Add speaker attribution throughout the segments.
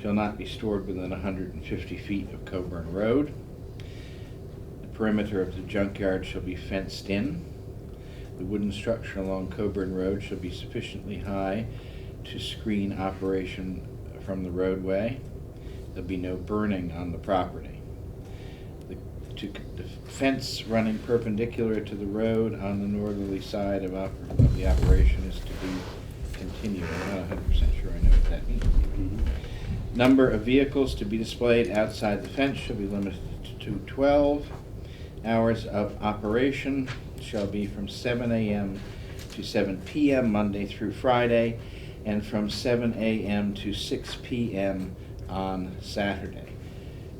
Speaker 1: shall not be stored within 150 feet of Coburn Road. The perimeter of the junkyard shall be fenced in. The wooden structure along Coburn Road shall be sufficiently high to screen operation from the roadway. There'll be no burning on the property. The, to, the fence running perpendicular to the road on the northerly side of, op- of the operation is to be continued. I'm not hundred percent sure I know what that means. Number of vehicles to be displayed outside the fence shall be limited to twelve. Hours of operation shall be from seven AM to seven PM, Monday through Friday, and from seven AM to six PM on Saturday.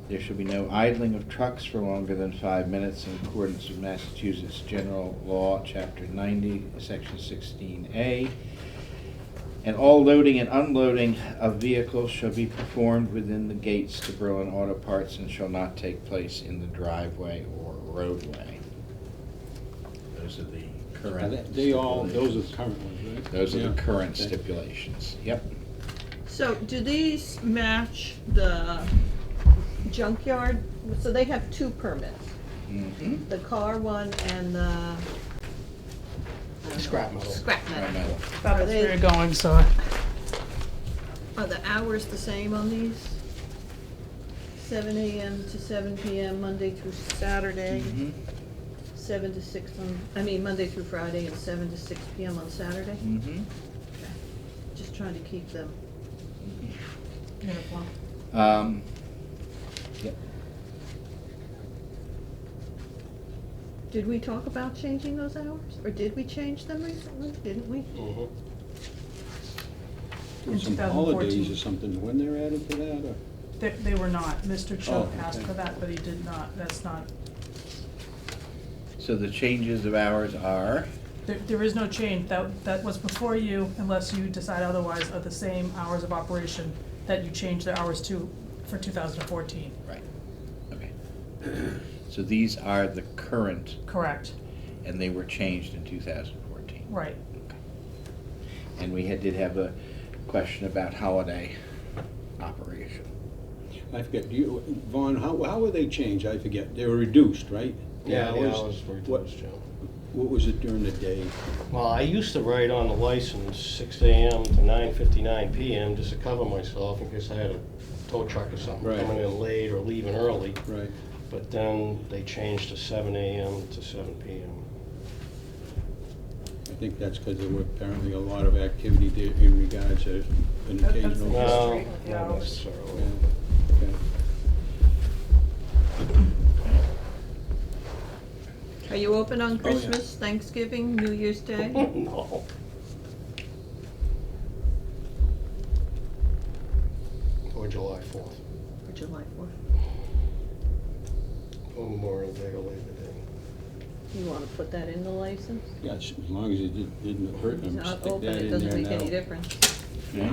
Speaker 1: There shall be no idling of trucks for longer than five minutes in accordance with Massachusetts General Law, Chapter ninety, Section sixteen A. And all loading and unloading of vehicles shall be performed within the gates to Berlin Auto Parts and shall not take place in the driveway or roadway. Those are the
Speaker 2: Are
Speaker 1: current
Speaker 2: They
Speaker 1: stipulations.
Speaker 2: they all, those are the current ones, right?
Speaker 1: Those are the
Speaker 2: Yeah.
Speaker 1: current
Speaker 2: Okay.
Speaker 1: stipulations, yep.
Speaker 3: So do these match the junkyard? So they have two permits,
Speaker 1: Mhm.
Speaker 3: the car one and the. I don't know,
Speaker 2: Scrap metal.
Speaker 3: Scrap
Speaker 1: Right,
Speaker 3: metal.
Speaker 1: Mel?
Speaker 4: Thought
Speaker 3: Are
Speaker 4: that's where
Speaker 3: they,
Speaker 4: you're going, so.
Speaker 3: are the hours the same on these? Seven AM to seven PM, Monday through Saturday,
Speaker 1: Mhm,
Speaker 3: seven to six on, I mean, Monday through Friday and seven to six PM on Saturday?
Speaker 1: mhm.
Speaker 3: Just trying to keep them.
Speaker 4: Uniform.
Speaker 1: Um, Yep,
Speaker 3: Did we talk about changing those hours? Or did we change them recently? Didn't we?
Speaker 2: Uh-huh.
Speaker 4: In
Speaker 2: Some
Speaker 4: 2014.
Speaker 2: holidays or something, when they're added to that, or?
Speaker 4: They, they were not. Mr. Chuck
Speaker 2: Oh,
Speaker 4: asked
Speaker 2: okay.
Speaker 4: for that, but he did not. That's not,
Speaker 1: so the changes of hours are,
Speaker 4: there, there is no change. That, that was before you, unless you decide otherwise, are the same hours of operation that you changed the hours to for two thousand and fourteen,
Speaker 1: right, okay. So these are the current,
Speaker 4: correct?
Speaker 1: and they were changed in 2014.
Speaker 4: Right.
Speaker 1: And we had, did have a question about holiday operation.
Speaker 2: I forget, do you, Vaughn, how, how were they changed? I forget, they were reduced, right? The
Speaker 5: Yeah, the
Speaker 2: hours?
Speaker 5: hours were
Speaker 2: What-
Speaker 5: reduced, yeah.
Speaker 2: What was it during the day?
Speaker 5: Well, I used to write on the license six AM to nine fifty-nine PM just to cover myself in case I had a tow truck or something
Speaker 2: Right.
Speaker 5: coming in late or leaving early.
Speaker 2: Right,
Speaker 5: But then they changed to seven AM to seven PM.
Speaker 2: I think that's because there were apparently a lot of activity there in regards to an
Speaker 4: That- that's
Speaker 2: occasional. Yeah,
Speaker 4: the history
Speaker 5: No,
Speaker 4: with the
Speaker 5: not
Speaker 4: hours.
Speaker 5: necessarily.
Speaker 2: okay.
Speaker 3: Are you open on
Speaker 2: Oh, yeah.
Speaker 3: Christmas, Thanksgiving, New Year's Day?
Speaker 5: No. Or July fourth,
Speaker 3: Or July fourth?
Speaker 5: or Memorial Day or Labor Day.
Speaker 3: You wanna put that in the license?
Speaker 2: Yeah, as long as it did- didn't hurt them,
Speaker 3: It's not
Speaker 2: stick
Speaker 3: open,
Speaker 2: that
Speaker 3: it
Speaker 2: in
Speaker 3: doesn't
Speaker 2: there
Speaker 3: make any
Speaker 2: now.
Speaker 3: difference.
Speaker 2: Hmm?
Speaker 1: Okay.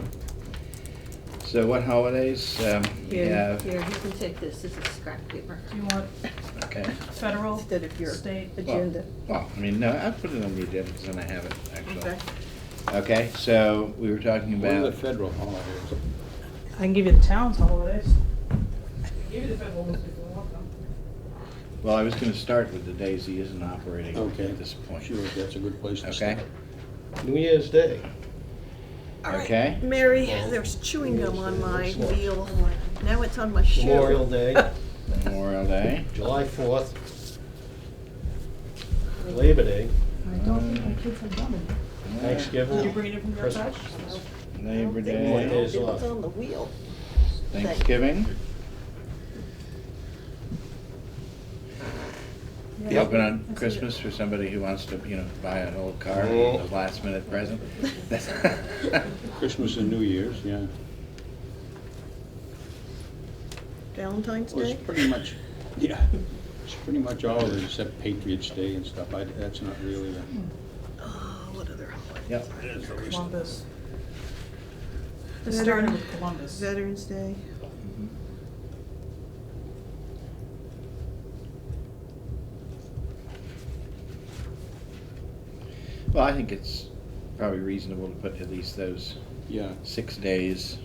Speaker 1: So what holidays um, we
Speaker 3: Here,
Speaker 1: have?
Speaker 3: here, you can take this, this is scrap paper,
Speaker 4: Do you want
Speaker 1: Okay.
Speaker 4: federal,
Speaker 3: instead of your
Speaker 4: state?
Speaker 3: agenda.
Speaker 1: Well, I mean, no, I put it on the agenda because then I have it, actually.
Speaker 3: Okay.
Speaker 1: Okay, so we were talking
Speaker 2: What are
Speaker 1: about,
Speaker 2: the federal holidays?
Speaker 4: I can give you the town's holidays. Give you the federal ones if you want them.
Speaker 1: well, I was going to start with the days he isn't operating
Speaker 2: Okay.
Speaker 1: at this point.
Speaker 2: Sure, that's a good place to
Speaker 1: Okay?
Speaker 2: start.
Speaker 5: New Year's Day.
Speaker 3: All right,
Speaker 1: Okay.
Speaker 3: Mary,
Speaker 5: Well,
Speaker 3: there's chewing gum on my
Speaker 5: New Year's Day, that's
Speaker 3: wheel, now it's on my shoe.
Speaker 5: Memorial Day,
Speaker 1: Memorial Day.
Speaker 5: July fourth, Labor Day,
Speaker 4: I don't think my kids have done it. Did you
Speaker 5: Thanksgiving,
Speaker 4: bring it from your
Speaker 5: Uh, Christmas.
Speaker 4: side?
Speaker 1: Labor
Speaker 5: Memorial
Speaker 1: Day.
Speaker 5: Day.
Speaker 3: It was on the wheel.
Speaker 1: Thanksgiving. Be open on
Speaker 4: That's it.
Speaker 1: Christmas for somebody who wants to, you know, buy an old car, a last minute present.
Speaker 2: Christmas and New Year's, yeah.
Speaker 3: Valentine's
Speaker 2: Well,
Speaker 3: Day?
Speaker 2: it's pretty much, yeah, it's pretty much all of it except Patriots Day and stuff. I, that's not really the.
Speaker 3: Oh, what other holiday?
Speaker 1: Yep,
Speaker 4: Columbus. It
Speaker 3: Veteran-
Speaker 4: started with Columbus.
Speaker 3: Veterans Day.
Speaker 1: well, I think it's probably reasonable to put at least those
Speaker 2: Yeah,
Speaker 1: six days